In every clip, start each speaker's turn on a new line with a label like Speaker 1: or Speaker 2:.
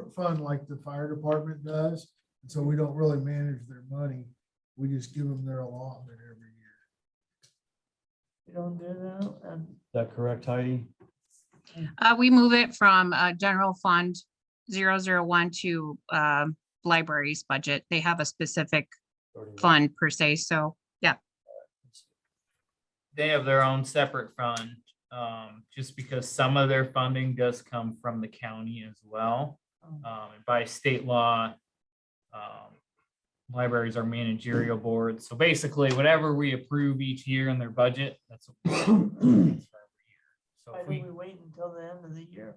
Speaker 1: separate fund like the fire department does. And so we don't really manage their money. We just give them their allotment every year.
Speaker 2: We don't do that, and
Speaker 3: that correct, Heidi?
Speaker 4: Uh, we move it from, uh, general fund zero zero one to, um, libraries budget. They have a specific fund per se, so,
Speaker 5: they have their own separate fund, um, just because some of their funding does come from the county as well.
Speaker 2: um,
Speaker 5: Um, and by state law, um, libraries are managerial boards. So basically, whatever we approve each year in their budget, that's. what we transfer every year. So
Speaker 2: why
Speaker 5: if
Speaker 2: do
Speaker 5: we,
Speaker 2: we wait until the end of the year?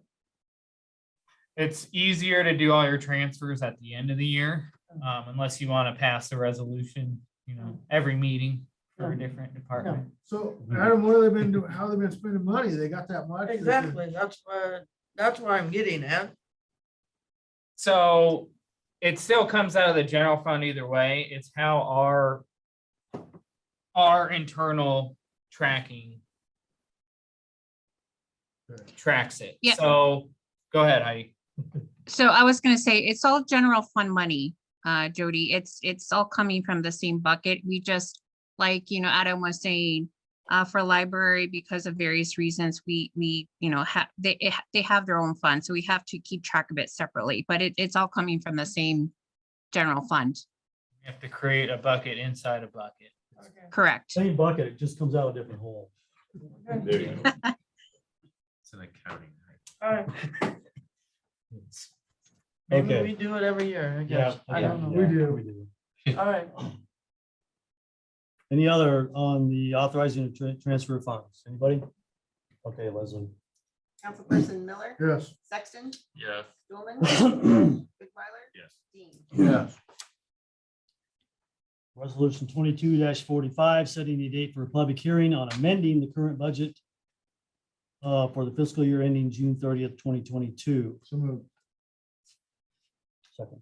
Speaker 5: it's easier to do all your transfers at the end of the year, um, unless you want to pass a resolution, you know, every meeting for a different department.
Speaker 1: So Adam, what have they been doing? How have they been spending money? They got that much? They just-
Speaker 2: Exactly, that's where, that's where I'm getting at.
Speaker 5: So it still comes out of the general fund either way. It's how our our internal tracking
Speaker 1: Okay.
Speaker 5: tracks it.
Speaker 4: Yeah.
Speaker 5: So go ahead, Heidi.
Speaker 4: so I was gonna say, it's all general fund money, uh, Jody. It's, it's all coming from the same bucket. We just, like, you know, Adam was saying, uh, for library, because of various reasons, we, we, you know, have, they, it ha- they have their own fund, so we have to keep track of it separately, but it, it's all coming from the same general fund,
Speaker 5: You have to create a bucket inside a bucket.
Speaker 4: correct?
Speaker 3: Same bucket, it just comes out a different hole.
Speaker 2: Okay.
Speaker 6: It's an accounting. right?
Speaker 2: All right,
Speaker 3: Okay.
Speaker 2: Maybe we do it every year, I guess. I don't know.
Speaker 1: We do.
Speaker 3: We do.
Speaker 2: All right,
Speaker 3: Any other on the authorizing of tran- transfer of funds? Anybody? Okay, Leslie.
Speaker 7: Councilperson Miller,
Speaker 1: Yes.
Speaker 7: Sexton,
Speaker 6: Yes.
Speaker 7: Stulman, Goodweiler,
Speaker 6: Yes.
Speaker 7: Dean.
Speaker 1: Yes.
Speaker 3: Resolution twenty-two forty-five, setting the date for a public hearing on amending the current budget uh, for the fiscal year ending June thirtieth, twenty twenty-two.
Speaker 1: So moved.
Speaker 3: Second.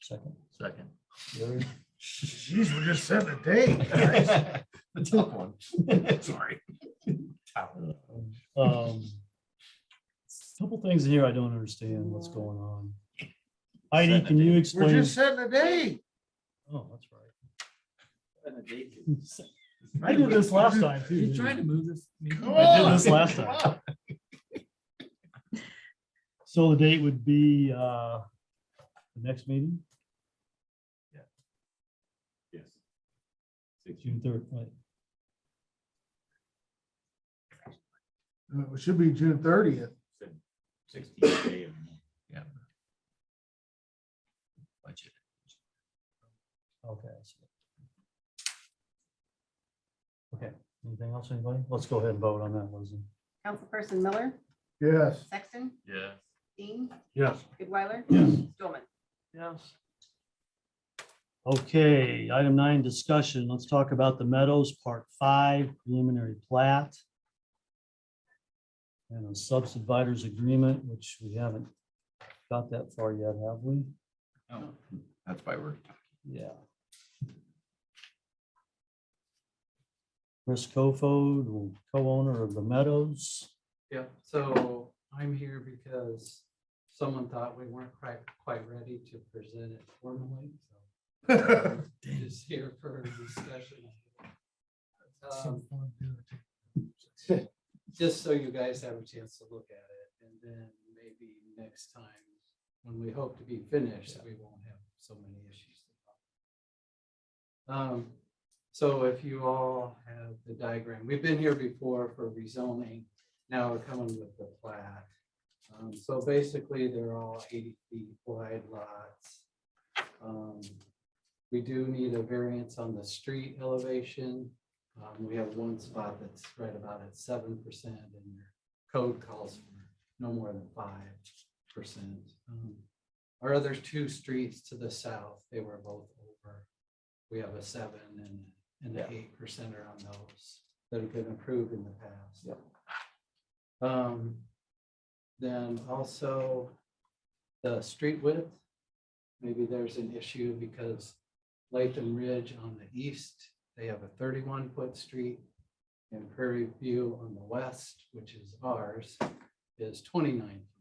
Speaker 3: Second.
Speaker 6: Second.
Speaker 3: Gary?
Speaker 1: Jeez, we're just setting a date. guys.
Speaker 6: The tough one. Sorry.
Speaker 3: Um, Couple things in here I don't understand what's going on. Heidi, can you
Speaker 1: We're
Speaker 3: explain?
Speaker 1: just setting a date.
Speaker 3: Oh, that's right. I did this last time too. didn't I?
Speaker 6: move this.
Speaker 1: Come
Speaker 3: I
Speaker 1: on.
Speaker 3: did this last time. So the date would be uh, the next meeting,
Speaker 6: Yes.
Speaker 3: June third, right?
Speaker 1: Uh, It should be June thirtieth.
Speaker 6: Sixteenth day of. Yeah. Budget.
Speaker 3: Okay. I see. Okay, anything else, anybody? Let's go ahead and vote on that, Leslie.
Speaker 7: Councilperson Miller,
Speaker 1: Yes.
Speaker 7: Sexton,
Speaker 6: Yeah.
Speaker 7: Dean,
Speaker 1: Yes.
Speaker 7: Goodweiler,
Speaker 6: Yes.
Speaker 7: Stulman.
Speaker 2: yes,
Speaker 3: Okay, item nine, discussion. Let's talk about the Meadows Part Five preliminary plat. And a subdividers agreement, which we haven't got that far yet, have we?
Speaker 6: That's why we're.
Speaker 3: Yeah. Chris Kofod, co-owner of the Meadows.
Speaker 8: Yeah, so I'm here because someone thought we weren't quite, quite ready to present it formally, so I'm just here for a discussion. Um, Just so you guys have a chance to look at it, and then maybe next time, when we hope to be finished, we won't have so many issues. Um, so if you all have the diagram, we've been here before for rezoning now we're coming with the plat. Um, so basically, they're all eighty feet wide lots. Um, We do need a variance on the street elevation. Um, we have one spot that's right about at seven percent and your code calls for no more than five percent. Um, Our other two streets to the south, they were both over. We have a seven and, and an eight percenter on those that have been approved in the past. Um, then also the street width. Maybe there's an issue because Latham Ridge on the east, they have a thirty-one foot street. And Prairie View on the west, which is ours, is twenty-nine